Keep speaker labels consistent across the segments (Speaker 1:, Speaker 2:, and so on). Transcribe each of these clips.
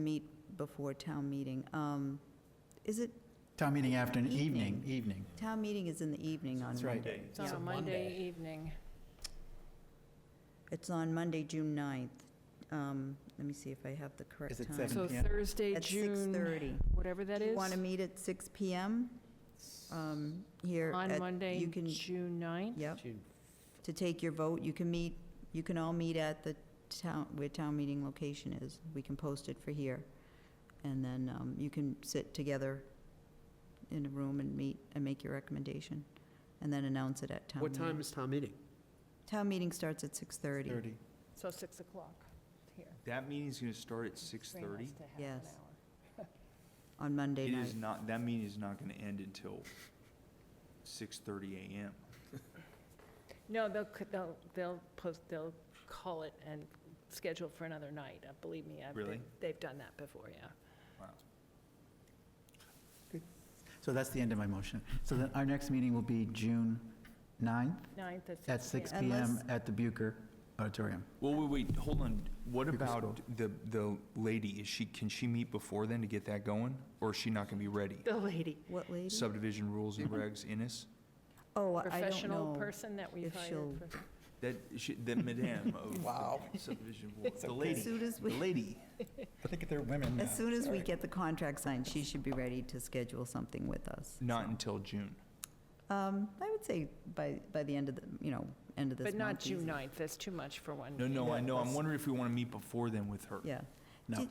Speaker 1: meet before town meeting. Um, Is it,
Speaker 2: Town meeting afternoon,
Speaker 1: Evening.
Speaker 2: evening, evening.
Speaker 1: town meeting is in the evening on
Speaker 2: That's right.
Speaker 1: Monday.
Speaker 3: It's on
Speaker 1: Yeah.
Speaker 3: a Monday evening.
Speaker 1: It's on Monday, June 9th. Um, Let me see if I have the correct
Speaker 2: Is it
Speaker 1: time.
Speaker 2: seven?
Speaker 3: So
Speaker 2: PM.
Speaker 3: Thursday,
Speaker 1: At
Speaker 3: June,
Speaker 1: 6:30.
Speaker 3: whatever that is,
Speaker 1: Want to meet at 6 PM um, here?
Speaker 3: on
Speaker 1: at-
Speaker 3: Monday,
Speaker 1: you can-
Speaker 3: June 9th.
Speaker 1: Yep, to take your vote. You can meet, you can all meet at the town, where town meeting location is. We can post it for here. And then um, you can sit together in a room and meet and make your recommendation, and then announce it at town
Speaker 4: What
Speaker 1: meeting.
Speaker 4: time is town meeting?
Speaker 1: Town meeting starts at 6:30.
Speaker 2: Thirty.
Speaker 3: So 6 o'clock here.
Speaker 5: That meeting's gonna start at six
Speaker 3: Bring us
Speaker 5: thirty.
Speaker 3: to half an
Speaker 1: Yes.
Speaker 3: hour.
Speaker 1: on Monday
Speaker 5: It
Speaker 1: night.
Speaker 5: is not, that meeting is not gonna end until six thirty AM.
Speaker 3: No, they'll, c- they'll, they'll post, they'll call it and schedule for another night. Uh, Believe me, I've
Speaker 5: Really?
Speaker 3: been, they've done that before, yeah.
Speaker 2: So that's the end of my motion. So then our next meeting will be June 9th
Speaker 3: 9th
Speaker 2: at
Speaker 3: at 6
Speaker 2: six
Speaker 3: p.m.
Speaker 2: PM
Speaker 1: Unless-
Speaker 2: at the Bucher Auditorium.
Speaker 5: Well, wait, wait, hold on. What
Speaker 2: Because-
Speaker 5: about the, the lady? Is she, can she meet before then to get that going? Or is she not gonna be ready?
Speaker 3: The lady,
Speaker 1: What lady?
Speaker 5: Subdivision rules and
Speaker 2: Mm-hmm.
Speaker 5: regs, Innis?
Speaker 1: Oh, I don't
Speaker 3: professional
Speaker 1: know.
Speaker 3: person that we've
Speaker 1: if she'll-
Speaker 3: hired. for-
Speaker 5: That, she, the madame of. Wow. Subdivision rules, the
Speaker 1: As
Speaker 5: lady,
Speaker 1: soon as
Speaker 5: the
Speaker 1: we,
Speaker 5: lady.
Speaker 2: I think they're women
Speaker 1: as soon as we get the contract signed, she should be ready to schedule something with us.
Speaker 5: Not until June.
Speaker 1: Um, I would say by, by the end of the, you know, end of this month.
Speaker 3: But not
Speaker 1: easy.
Speaker 3: June 9th, that's too much for one.
Speaker 5: No, no, I know. I'm
Speaker 1: that's-
Speaker 5: wondering if we wanna meet before then with her.
Speaker 1: Yeah.
Speaker 2: No,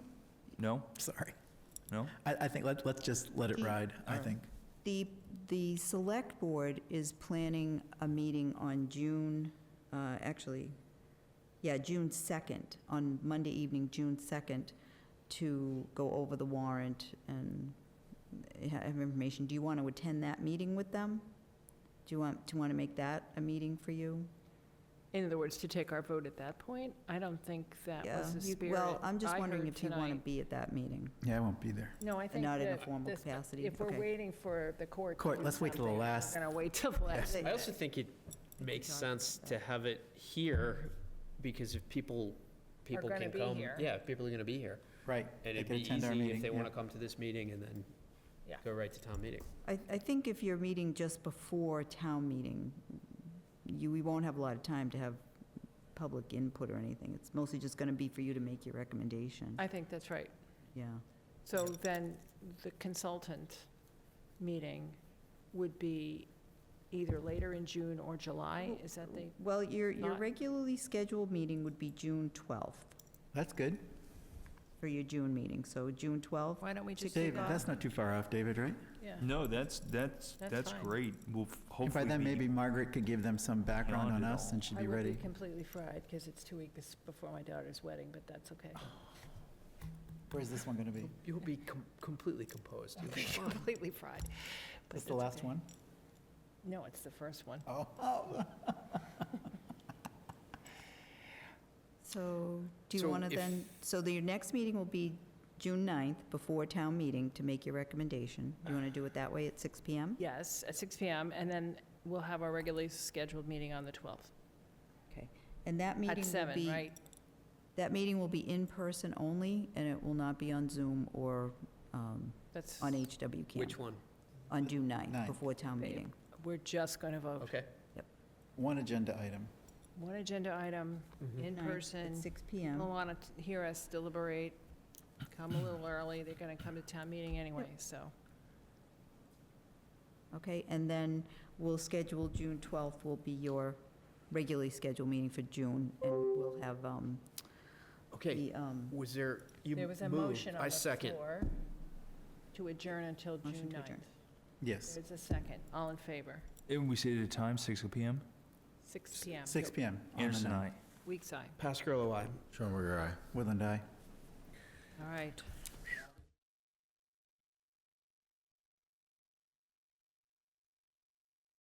Speaker 5: No?
Speaker 2: sorry.
Speaker 5: No?
Speaker 2: I, I think, let's, let's just let it
Speaker 1: Yeah.
Speaker 2: ride, I
Speaker 5: Alright.
Speaker 2: think.
Speaker 1: The, the select board is planning a meeting on June, uh, actually, yeah, June 2nd, on Monday evening, June 2nd, to go over the warrant and have information. Do you want to attend that meeting with them? Do you want, do you want to make that a meeting for you?
Speaker 3: In other words, to take our vote at that point? I don't think that
Speaker 1: Yeah.
Speaker 3: was the
Speaker 1: You-
Speaker 3: spirit
Speaker 1: Well, I'm just
Speaker 3: I
Speaker 1: wondering
Speaker 3: heard
Speaker 1: if you want to
Speaker 3: tonight.
Speaker 1: be at that meeting,
Speaker 2: Yeah, I won't be there.
Speaker 3: No, I
Speaker 1: and
Speaker 3: think
Speaker 1: not in a
Speaker 3: that
Speaker 1: formal
Speaker 3: this-
Speaker 1: capacity.
Speaker 3: if we're
Speaker 1: Okay.
Speaker 3: waiting for the court. to
Speaker 2: Court,
Speaker 3: do
Speaker 2: let's wait till the
Speaker 3: something, we're
Speaker 2: last-
Speaker 3: gonna wait till the last.
Speaker 1: Yes.
Speaker 6: I also think it makes
Speaker 3: talk
Speaker 6: sense
Speaker 3: about
Speaker 6: to
Speaker 3: that.
Speaker 6: have it here, because if people, people
Speaker 3: gonna
Speaker 6: can
Speaker 3: be
Speaker 6: come.
Speaker 3: here.
Speaker 6: Yeah, people are gonna be here,
Speaker 2: Right.
Speaker 6: and
Speaker 2: They
Speaker 6: it'd
Speaker 2: can
Speaker 6: be
Speaker 2: attend our
Speaker 6: easy
Speaker 2: meeting,
Speaker 6: if they
Speaker 2: yeah.
Speaker 6: wanna come to this meeting and then
Speaker 3: Yeah.
Speaker 6: go right to town meeting.
Speaker 1: I, I think if you're meeting just before town meeting, you, we won't have a lot of time to have public input or anything. It's mostly just going to be for you to make your recommendation.
Speaker 3: I think that's right.
Speaker 1: Yeah.
Speaker 3: So then the consultant meeting would be either later in June or July, is that the?
Speaker 1: Well, your, your
Speaker 3: Not-
Speaker 1: regularly scheduled meeting would be June 12th
Speaker 2: That's good.
Speaker 1: for your June meeting. So June 12th,
Speaker 3: Why don't we just kick
Speaker 2: David,
Speaker 3: off?
Speaker 2: that's not too far off, David, right?
Speaker 3: Yeah.
Speaker 5: No, that's, that's,
Speaker 3: That's
Speaker 5: that's
Speaker 3: fine.
Speaker 5: great. We'll f-
Speaker 2: And
Speaker 5: hopefully.
Speaker 2: by then,
Speaker 5: be-
Speaker 2: maybe Margaret could give them some background on
Speaker 5: it
Speaker 2: us
Speaker 5: all.
Speaker 2: and she'd be
Speaker 3: I
Speaker 2: ready.
Speaker 3: would be completely fried, because it's two weeks before my daughter's wedding, but that's okay.
Speaker 2: Oh, Where's this one going to be?
Speaker 6: You'll be com- completely composed. You'll be fine.
Speaker 3: Completely fried. but
Speaker 2: Is the
Speaker 3: that's
Speaker 2: last
Speaker 3: okay.
Speaker 2: one?
Speaker 3: No, it's the first one.
Speaker 2: Oh.
Speaker 1: so do you
Speaker 6: So
Speaker 1: want to
Speaker 6: if-
Speaker 1: then, so the- your next meeting will be June 9th before town meeting to make your recommendation. You want to do it that way at 6 PM?
Speaker 3: Yes, at 6 PM, and then we'll have our regularly scheduled meeting on the 12th.
Speaker 1: And that meeting
Speaker 3: At
Speaker 1: will
Speaker 3: 7,
Speaker 1: be
Speaker 3: right?
Speaker 1: That meeting will be in person only, and it will not be on Zoom or um,
Speaker 3: That's,
Speaker 1: on HW
Speaker 6: Which
Speaker 1: Camp
Speaker 6: one?
Speaker 1: on June 9th,
Speaker 2: Ninth.
Speaker 1: before town meeting.
Speaker 3: we're just going to vote.
Speaker 6: Okay.
Speaker 2: One agenda item.
Speaker 3: One agenda item,
Speaker 6: Mhm.
Speaker 3: in
Speaker 1: Ninth At
Speaker 3: person.
Speaker 1: 6
Speaker 3: They'll
Speaker 1: PM.
Speaker 3: want to hear us deliberate, come a little early, they're going to come to town meeting anyway, so.
Speaker 1: Okay, and then we'll schedule, June 12th will be your regularly scheduled meeting for June, and we'll have um,
Speaker 6: Okay,
Speaker 1: the, um,
Speaker 6: was there, you
Speaker 3: There was a
Speaker 6: moved,
Speaker 3: motion on
Speaker 6: I
Speaker 3: the
Speaker 6: second.
Speaker 3: floor to adjourn until
Speaker 1: Motion
Speaker 3: June
Speaker 1: to adjourn.
Speaker 3: 9th.
Speaker 2: Yes.
Speaker 3: There's a second, all in favor,
Speaker 5: And we say at a time, six PM?
Speaker 3: 6 PM.
Speaker 2: 6 PM. on the
Speaker 5: Anderson,
Speaker 2: ninth.
Speaker 5: aye.
Speaker 3: Weak side,
Speaker 6: Pascal, I.
Speaker 2: Woodland, aye.
Speaker 3: all right.